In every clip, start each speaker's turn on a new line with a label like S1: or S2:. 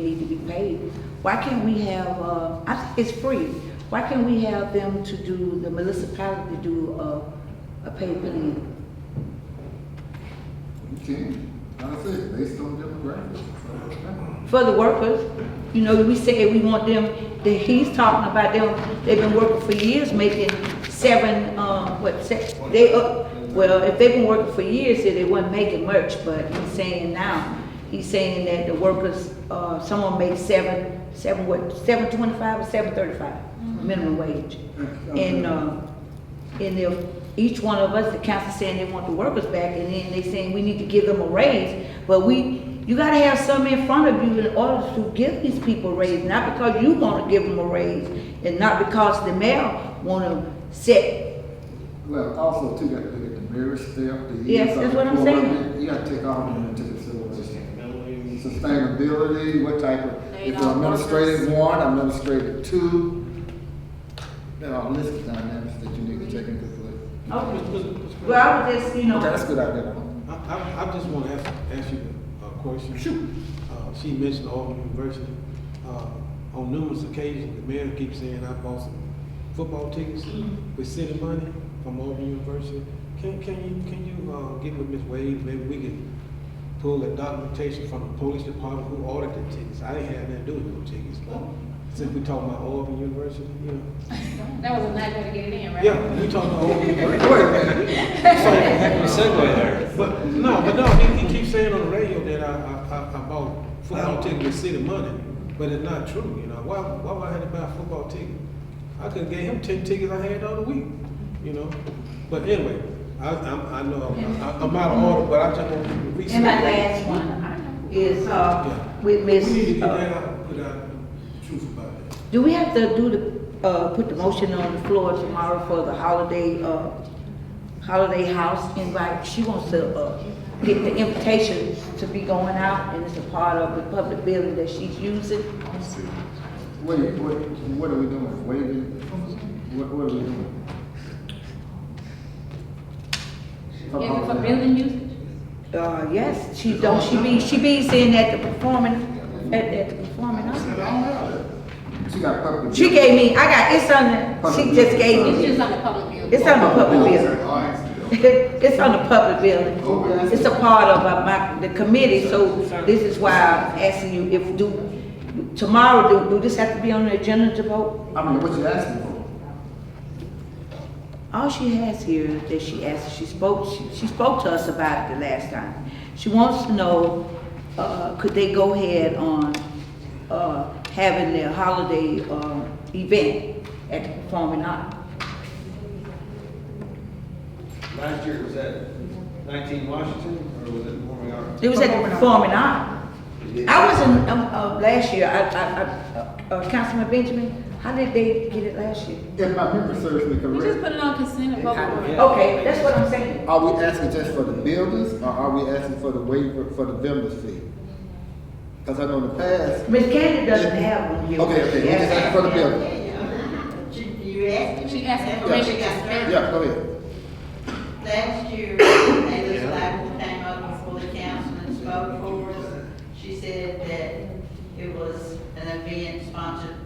S1: need to be paid. Why can't we have, uh, I think it's free, why can't we have them to do, the municipality do uh, a, a pay plan?
S2: You can, like I said, based on demographics.
S1: For the workers, you know, we say we want them, that he's talking about them, they've been working for years making seven, um, what, se- they, uh, well, if they've been working for years, then they weren't making much, but he's saying now, he's saying that the workers, uh, someone makes seven, seven what, seven twenty-five or seven thirty-five minimum wage. And,
S2: uh,
S1: um, and if each one of us, the council saying they want the workers back, and then they saying we need to give them a raise, but we, you gotta have some in front of you in order to give these people a raise, not because you wanna give them a raise, and not because the mayor wanna set,
S2: Well, also too, you got to look at the marriage step, the.
S1: Yes,
S2: years of
S1: that's what I'm
S2: employment. You gotta take all of them into consideration. Sustainability, what type of,
S3: They
S2: if
S3: don't
S2: administrative one, administrative two. There are a list of dynamics that you need to take into play.
S1: well, I was just, you know.
S2: That's a good idea.
S4: I, I, I just want to ask, ask you a question. Uh, she mentioned Auburn University. Uh, on numerous occasions, the mayor keeps saying, I bought some football tickets with city money from Auburn University. Can, can you, can you, uh, get with Ms. Wade, maybe we can pull the documentation from the police department who ordered the tickets? I didn't have nothing to do with no tickets, but since we talking about Auburn University, you know.
S3: That was a nice way to get it in, right?
S4: Yeah, we talking about Auburn University.
S2: Wait a minute.
S5: Happy segue there.
S4: But no, but no, he, he keeps saying on the radio that I, I, I, I bought football tickets with city money, but it's not true, you know, why, why would I have to buy a football ticket? I could've gave him ten tickets I had all the week, you know, but anyway, I, I'm, I know, I'm- I- I'm out of order, but I just want to research.
S1: And my last one is, uh, with
S4: We
S1: Miss.
S4: need to get
S1: uh,
S4: that out, put out the truth about that.
S1: Do we have to do the, uh, put the motion on the floor tomorrow for the holiday, uh, holiday house invite? She wants to, uh, get the invitation to be going out and it's a part of the public building that she's using.
S2: Wait, what, what are we doing? Waiving? What, what are we doing?
S3: Is it for building usage?
S1: Uh, yes, she don't, she be, she be saying at the performing, at, at the performing arts.
S2: She got public.
S1: She gave me, I got, it's on, the- she just gave
S3: It's
S1: me,
S3: just on the public building.
S1: it's on the public building.
S2: building.
S1: It's on the public building. It's a part of uh, my, the committee, so this is why I'm asking you if do, tomorrow, do, do this have to be on the agenda to vote?
S2: I mean, what you asking for?
S1: All she has here is that she asked, she spoke, she- she spoke to us about it the last time. She wants to know, uh, could they go ahead on, uh, having their holiday, um, event at the Performing Arts?
S5: Last year, was that nineteen Washington, or was it Warming Arts?
S1: It was at the Performing Arts. I wasn't, um, uh, last year, I, I, I, uh, Councilman Benjamin, how did they get it last year?
S2: If my memory serves me
S3: We just
S2: correct,
S3: put it on consent and vote for it.
S1: Okay, that's what I'm saying.
S2: are we asking just for the builders or are we asking for the waiver for the vendor's fee? Cause I know in the past,
S1: Ms. Candy doesn't have one here.
S2: okay, okay, we just asking for the builders.
S6: You asked.
S3: She asked for permission to spend.
S2: Yeah, go ahead.
S6: Last year, a legislator came up before the council and spoke for us. She said that it was an event sponsored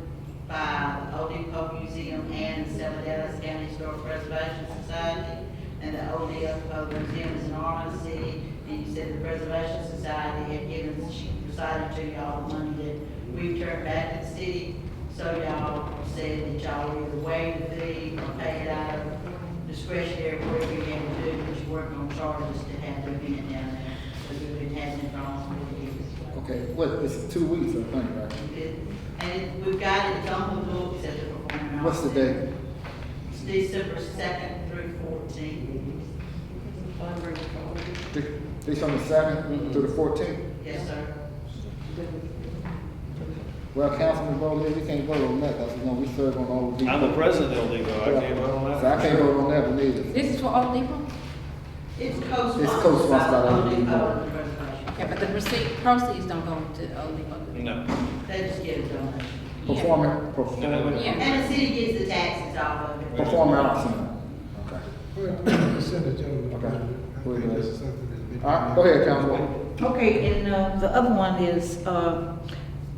S6: by the Old Depot Museum and the Seven Dallas County Historic Preservation Society. And the Old Depot Museum is in Harlan City, and you said the Preservation Society had given, she decided to y'all the money that we turned back to the city. So y'all said that y'all either waived the fee or paid it out of discretionary work we had to do, which work on charges to have them being down there, because we've been having it on for years.
S2: Okay, what, it's two weeks, I think, right?
S6: It- And it- we've got it on the books at the performing arts.
S2: What's the date?
S6: It's December second through fourteenth.
S2: They- They from the seventh to the fourteenth?
S6: Yes, sir.
S2: Well, Councilman Bowley, we can't vote on that, that's, you know, we serve on all of these.
S5: I'm the president of Legal, I can't vote on
S2: So I
S5: that.
S2: can't vote on that one either.
S3: This is for Old Depot?
S6: It's co-sponsored.
S2: It's co-sponsored by the Old
S6: Old
S2: Depot.
S6: and the Preservation.
S3: Yeah, but the proceed, proceeds don't go to Old Depot.
S5: No.
S6: They just give a donation.
S2: Performing, performing,
S3: Yeah.
S6: And the city gets the taxes off of it.
S2: performing arts center. Okay. Okay. All right, go ahead, Councilman.
S1: Okay, and, uh, the other one is, uh,